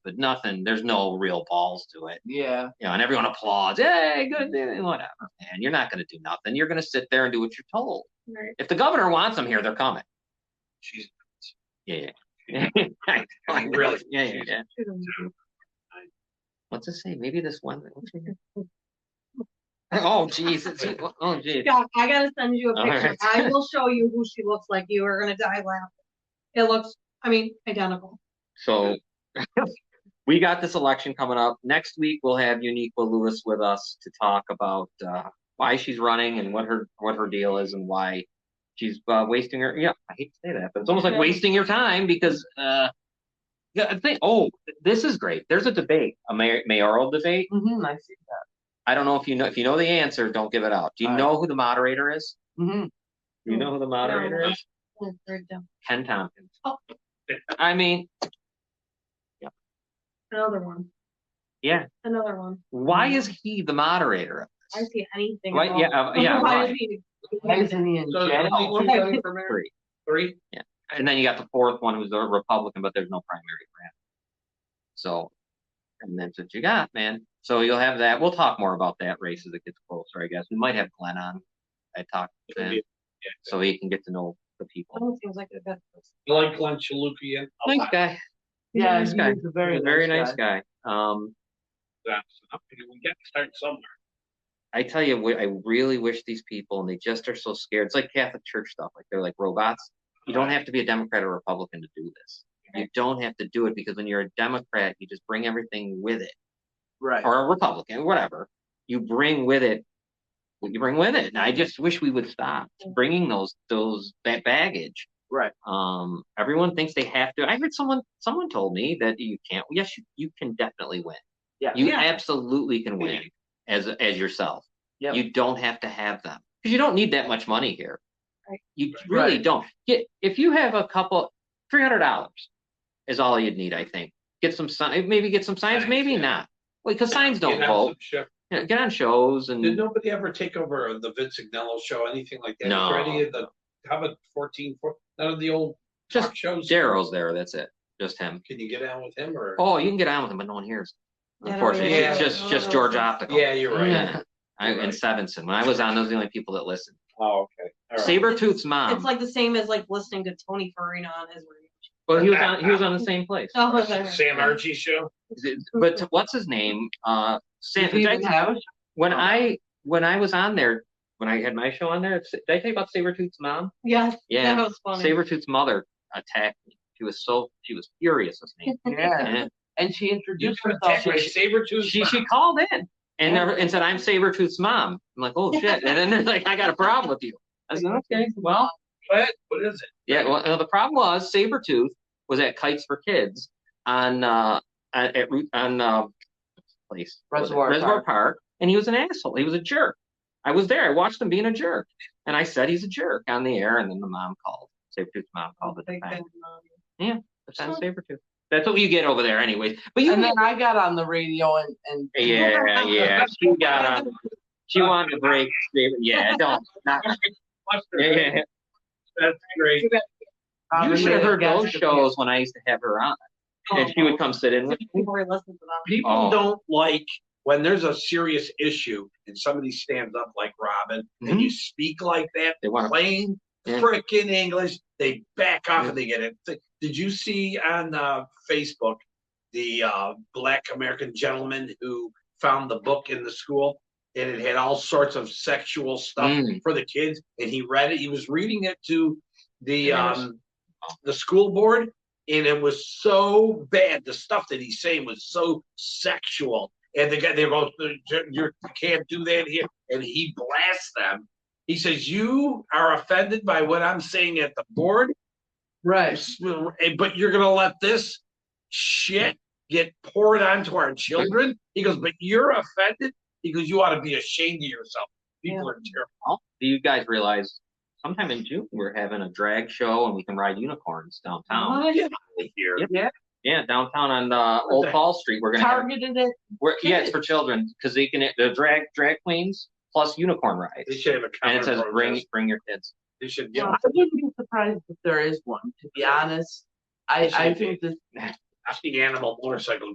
but nothing. There's no real balls to it. Yeah. You know, and everyone applauds. Hey, good, day," whatever. And you're not going to do nothing. You're going to sit there and do what you're told. Right. If the governor wants them here, they're coming. She's Yeah. yeah. Like, really? Yeah, yeah, yeah. What's it say? Maybe this one. what's it say? Oh, Jesus. Oh, Jesus. God, I gotta send you a All picture. right. I will show you who she looks like. You are gonna die laughing. It looks, I mean, identical. So we got this election coming up. Next week we'll have Uniqua Lewis with us to talk about uh, why she's running and what her what her deal is and why she's uh, wasting her. Yeah, I hate to say that, but it's almost like Yeah. wasting your time because uh, yeah, I think oh this is great. There's a debate, a mayor, mayoral debate. Mm-hmm. I see that. I don't know if you know if you know the answer. Don't give it out. Do you All right. know who the moderator is? Mm-hmm. Do you know who the moderator is? Oh, they're dumb. Ken Tompkins. Oh. I mean, Another one. Yeah. Another one. why Mm. is he the moderator? I see anything. Why, wrong. yeah, uh, yeah. Why why? is he- Why isn't he in So jail? there's only two Okay. running for mayor? Three. Three? and then you got the fourth one who's a Republican, but there's no primary for him. So, and that's what you got, man. So you'll have that. We'll talk more about that race as it gets closer, I guess. We might have Glenn on. I talked to him so he can get to know the people. Someone seems like a good person. I like Glenn Chalupian. Nice guy. Yeah, nice he guy. is a very, He's a very nice guy. Um, We got to start somewhere. I tell you, what, I really wish these people, and they just are so scared. It's like Catholic Church stuff. Like they're like robots. You don't have to be a Democrat or Republican to do this. You don't have to do it because when you're a Democrat, you just bring everything with it. Right. or a Republican, whatever, you bring with it what you bring with it. And I just wish we would stop bringing those those that baggage. Right. Um, everyone thinks they have to. I heard someone someone told me that you can't. Yes, you, you can definitely win. Yeah. You Yeah. absolutely can win as as yourself. Yep. You don't have to have them because you don't need that much money here. Right. You really Right. don't. Get if you have a couple, three hundred dollars is all you'd need. I think get some sign, maybe get some signs, Signs, maybe yeah. not. Well, because signs Get don't on vote. some show. Yeah, get on shows Did and nobody ever take over the Vince Ignello show, anything like that? No. Or any of the, how about fourteen, four- none of the old just talk shows? Daryl's there. That's it. Just him. Can you get on with him or? Oh, you can get on with him, but no one hears. Yeah, Unfortunately, yeah. it's just just George um, Optical. Yeah, you're right. Yeah. I, You're and Sevenson. When I was on, those are the only people that listened. Oh, okay. All right. Sabretooth's mom. It's like the same as like listening to Tony Farina on his radio. well, he was on. He was on the same place. Oh, was I- Sam Archie show? But what's his name? Uh, Sam. Did he did I- even have a when I when I was on there, when I had my show on there, did I tell you about Sabretooth's mom? Yes, Yeah. that was funny. Sabretooth's mother attacked me. She was so she was furious with me. Yeah. And- And she You introduced were attacked herself. by Sabretooth? she she called in and never and said, "I'm Sabretooth's mom." I'm like, "Oh shit!" And then they're like, "I got a problem with you." I said, "Okay, well, What? What is it? yeah." Well, no, the problem was Sabretooth was at Kites for Kids on uh at, at Route- on uh place what was it? Reservoir Reservoir Park. Park, and he was an asshole. He was a jerk. I was there. I watched him being a jerk, and I said he's a jerk on the air. And then the mom called. Sabretooth's mom called the Big defense. Ben, um, defense Sabretooth. That's what you get over there, anyways. But you And then I got on the radio and, and Yeah, yeah. She got on. She wanted to break. Yeah, don't. Not, yeah, yeah, yeah. That's great. uh, You should have heard gas those to- shows when I used to have her on, Oh, and Oh. she would come sit in with. me. Before he listens to them. People Oh. don't like when there's a serious issue and somebody stands up like Robin and you speak like that, They want. plain Mm-hmm. Yeah. frickin' English, they back off Yeah. and they get it. Th- Did you see on uh, Facebook the uh, black American gentleman who found the book in the school and it had all sorts of sexual stuff Mm. for the kids? And he read it. He was reading it to the Yeah, it was- um, the school board, and it was so bad. The stuff that he's saying was so sexual. And the guy, they both, you're, you can't do that here. And he blasts them. He says, You are offended by what I'm saying at the board, Right. but you're going to let this shit get poured onto our children. He goes, But you're offended? He goes, You ought to be ashamed of yourself. People are terrible. Do you guys realize? Sometime in June, we're having a drag show, and we can ride unicorns downtown. What? Get out of here. Yep. Yeah. Yeah, downtown on uh, What Old the- Fall Street. We're gonna. Have, Targeted it. we're, yeah, it's for children because they can the drag drag queens plus unicorn They rides, should have a and it says counter bring protest. bring your kids. They should Yeah. get I wouldn't be surprised if there is one, to be honest. I, I think this off the animal motorcycle